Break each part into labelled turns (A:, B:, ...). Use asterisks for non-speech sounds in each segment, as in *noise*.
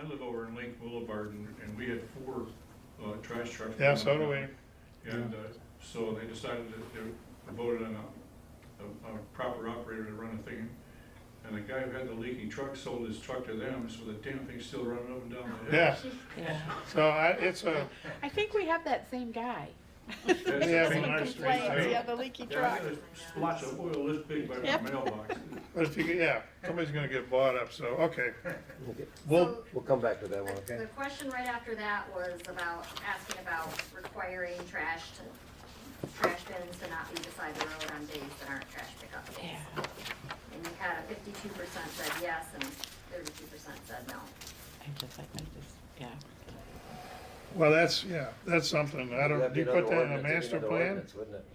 A: I live over in Lake Boulevard and, and we had four, uh, trash trucks.
B: Yeah, so do we.
A: And, uh, so they decided that they voted on a, a, a proper operator to run a thing. And the guy who had the leaking truck sold his truck to them, so the damn thing's still running up and down the hill.
B: Yeah,
C: Yeah.
B: so I, it's a,
D: I think we have that same guy.
A: That's
B: Yeah,
A: a
B: from
A: big
B: our
A: mistake,
B: street,
A: too.
B: too.
E: Complains, yeah, the leaky
A: Yeah, I
E: truck.
A: got a splotch of oil this big by my
E: Yep.
A: mailbox.
B: but if you, get- yeah, somebody's gonna get bought up, so, okay.
F: Okay,
B: Well,
F: We'll come back to that one,
G: The
F: okay?
G: the question right after that was about, asking about requiring trash to, trash bins to not be beside the road on days that aren't trash pickup days.
C: Yeah,
G: And you had a fifty-two percent said yes and thirty-two percent said no.
C: I just, I I just, yeah.
B: well, that's, yeah, that's something, I don't,
F: That'd
B: do you
F: be another
B: put that in a
F: ordinance, it'd
B: master
F: be another
B: plan?
F: ordinance, Wouldn't it?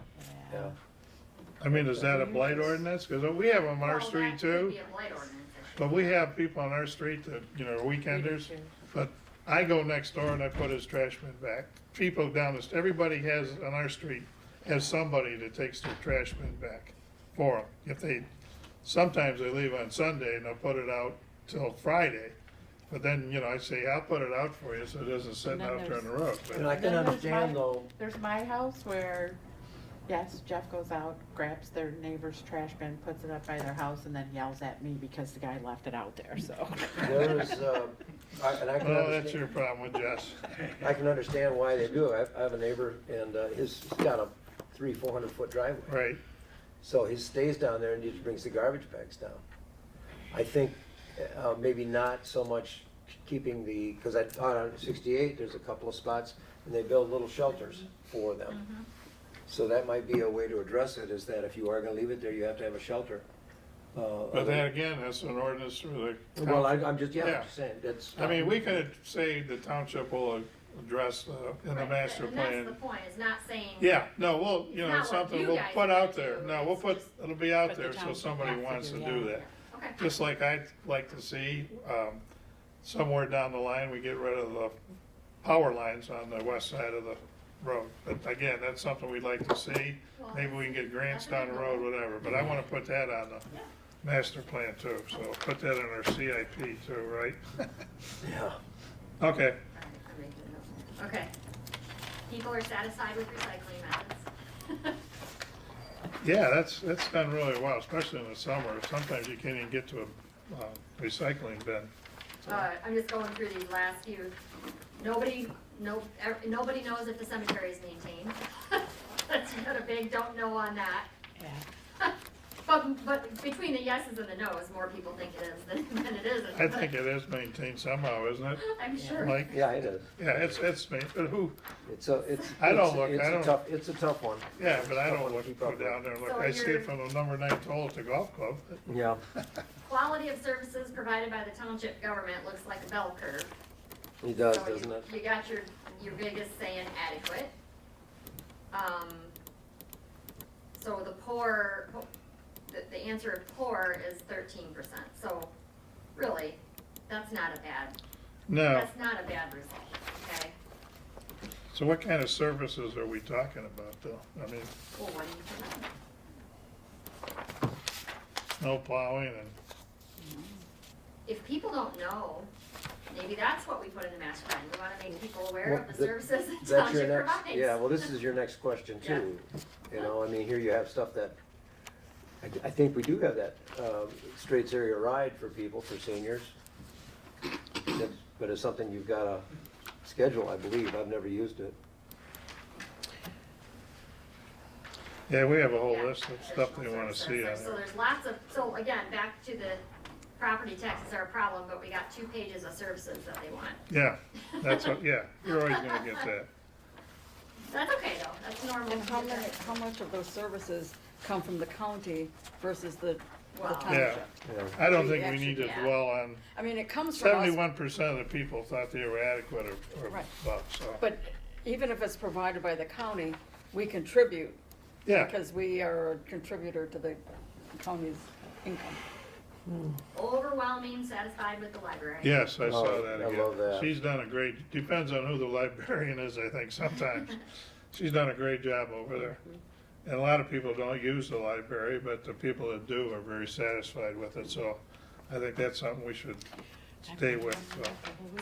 C: Yeah.
F: Yeah.
B: I mean, is that a blight ordinance? Cause we have them on our
G: Well,
B: street
G: that could
B: too,
G: be a blight ordinance issue.
B: but we have people on our street that, you know, are weekenders. But I go next door and I put his trash bin back. People down the, st- everybody has, on our street, has somebody that takes their trash bin back for them. If they, sometimes they leave on Sunday and they'll put it out till Friday. But then, you know, I say, I'll put it out for you so it doesn't sit
C: And then
B: out there on the
C: there's-
B: road.
F: And I
B: But-
F: can
C: Then there's my-
F: understand though,
C: There's my house where, yes, Jeff goes out, grabs their neighbor's trash bin, puts it up by their house, and then yells at me because the guy left it out there, so.
F: there is, uh, I- and I can
B: Well, Oh, that's
F: understand,
B: your problem with Uh,
F: *laughs*
B: Jess.
F: I can understand why they do. it. I I have a neighbor and uh, his, he's got a three, four hundred foot driveway.
B: Right,
F: So he stays down there and he just brings the garbage bags down. I think uh, maybe not so much keeping the, because I, on 68, there's a couple of spots, and they build little shelters for them. So that might be a way to address it, is that if you are gonna leave it there, you have to have a shelter. Uh,
B: but then again, that's an ordinance through the.
F: Well, I- I'm just, yeah,
B: Yeah.
F: I'm just saying, that's. um,
B: I mean,
G: Um,
B: we could say the township will address uh, in the
G: Right,
B: master
G: and
B: plan.
G: that's the point, it's not saying.
B: Yeah, no, we'll, you know,
G: Not what
B: something
G: you
B: we'll
G: guys
B: put out
G: do,
B: there. No, we'll
G: it's
B: put,
G: just-
B: it'll be out
C: But the
B: there so
C: town
B: somebody
C: has to
B: wants to
C: do
B: do
C: that.
B: that.
G: Okay.
B: Just like I'd like to see, um, somewhere down the line, we get rid of the power lines on the west side of the road. But again, that's something we'd like to see.
G: Well,
B: Maybe we can get grants
G: that's a
B: down
G: good
B: the road, whatever, but I wanna put that on the
G: Yeah.
B: master plan too, so put that in our CIP too, right? *laughs*
F: Yeah.
B: Okay,
G: All right, I'm making a note. Okay. People are satisfied with recycling methods. *laughs*
B: yeah, that's, that's done really well, especially in the summer. Sometimes you can't even get to a, uh, recycling bin.
G: Uh, I'm just going through these last few. Nobody, no, ev- nobody knows if the cemetery is maintained. *laughs* That's not a big don't know on that.
C: *laughs*
G: *laughs*
C: Yeah.
G: But, but between the yeses and the noes, more people think it is than, *laughs* than it isn't.
B: I think it is maintained somehow, isn't it?
G: *laughs* I'm sure.
B: Mike?
F: Yeah, it is.
B: Yeah, it's, it's ma- but who,
F: It's a, it's.
B: I don't
F: it's-
B: look,
F: it's
B: I
F: a
B: don't-
F: tough- It's a tough one.
B: yeah, but I
F: It's a tough
B: don't
F: one to
B: look,
F: keep
B: go
F: up with.
B: down there, and look,
G: So
B: I see
G: you're-
B: it from the number nine toll at the golf club.
F: Yeah.
G: Quality of services provided by the township government looks like a bell curve.
F: He does,
G: So you-
F: doesn't it?
G: You got your, your biggest saying adequate. Um, so the poor, the, the answer of poor is thirteen percent, so really, that's not a bad,
B: No,
G: that's not a bad result, okay?
B: so what kind of services are we talking about though? I mean,
G: Well, what do you think?
B: snow plowing and,
G: If people don't know, maybe that's what we put in the master plan, we wanna make people aware
F: Well,
G: of the
F: that-
G: services the
F: That's your
G: township
F: next.
G: provides.
F: Yeah, well, this is your next question too. You know, I mean, here you have stuff that, I, I think we do have that, um, straights area ride for people, for seniors. That's- But it's something you've gotta schedule, I believe. I've never used it.
B: yeah, we have a whole
G: Yeah,
B: list of Oh, stuff they
G: additional
B: wanna see on
G: services. So
B: there.
G: there's lots of, so again, back to the property taxes are a problem, but we got two pages of services that they want.
B: Yeah, that's, what. yeah, you're always gonna get that.
G: That's okay though, that's normal.
E: And how many, how much of those services come from the county versus the, the
G: Wow.
B: Yeah,
E: township?
F: Yeah.
B: I don't think we need to
G: Yeah.
B: dwell on,
E: I mean, it comes from us,
B: seventy-one percent of the people thought they were adequate or, or
E: Right.
B: above, so,
E: but even if it's provided by the county, we contribute
B: yeah.
E: because we are a contributor to the county's income.
G: Overwhelming satisfied with the library.
B: Yes, I saw
F: Oh,
B: that
F: I
B: again.
F: love that.
B: She's done a great, depends on who the librarian is, I think,
E: *laughs*
B: sometimes. She's done a great job over there.
E: Mm-hmm.
B: And a lot of people don't use the library, but the people that do are very satisfied with it, so I think that's something we should stay with, so.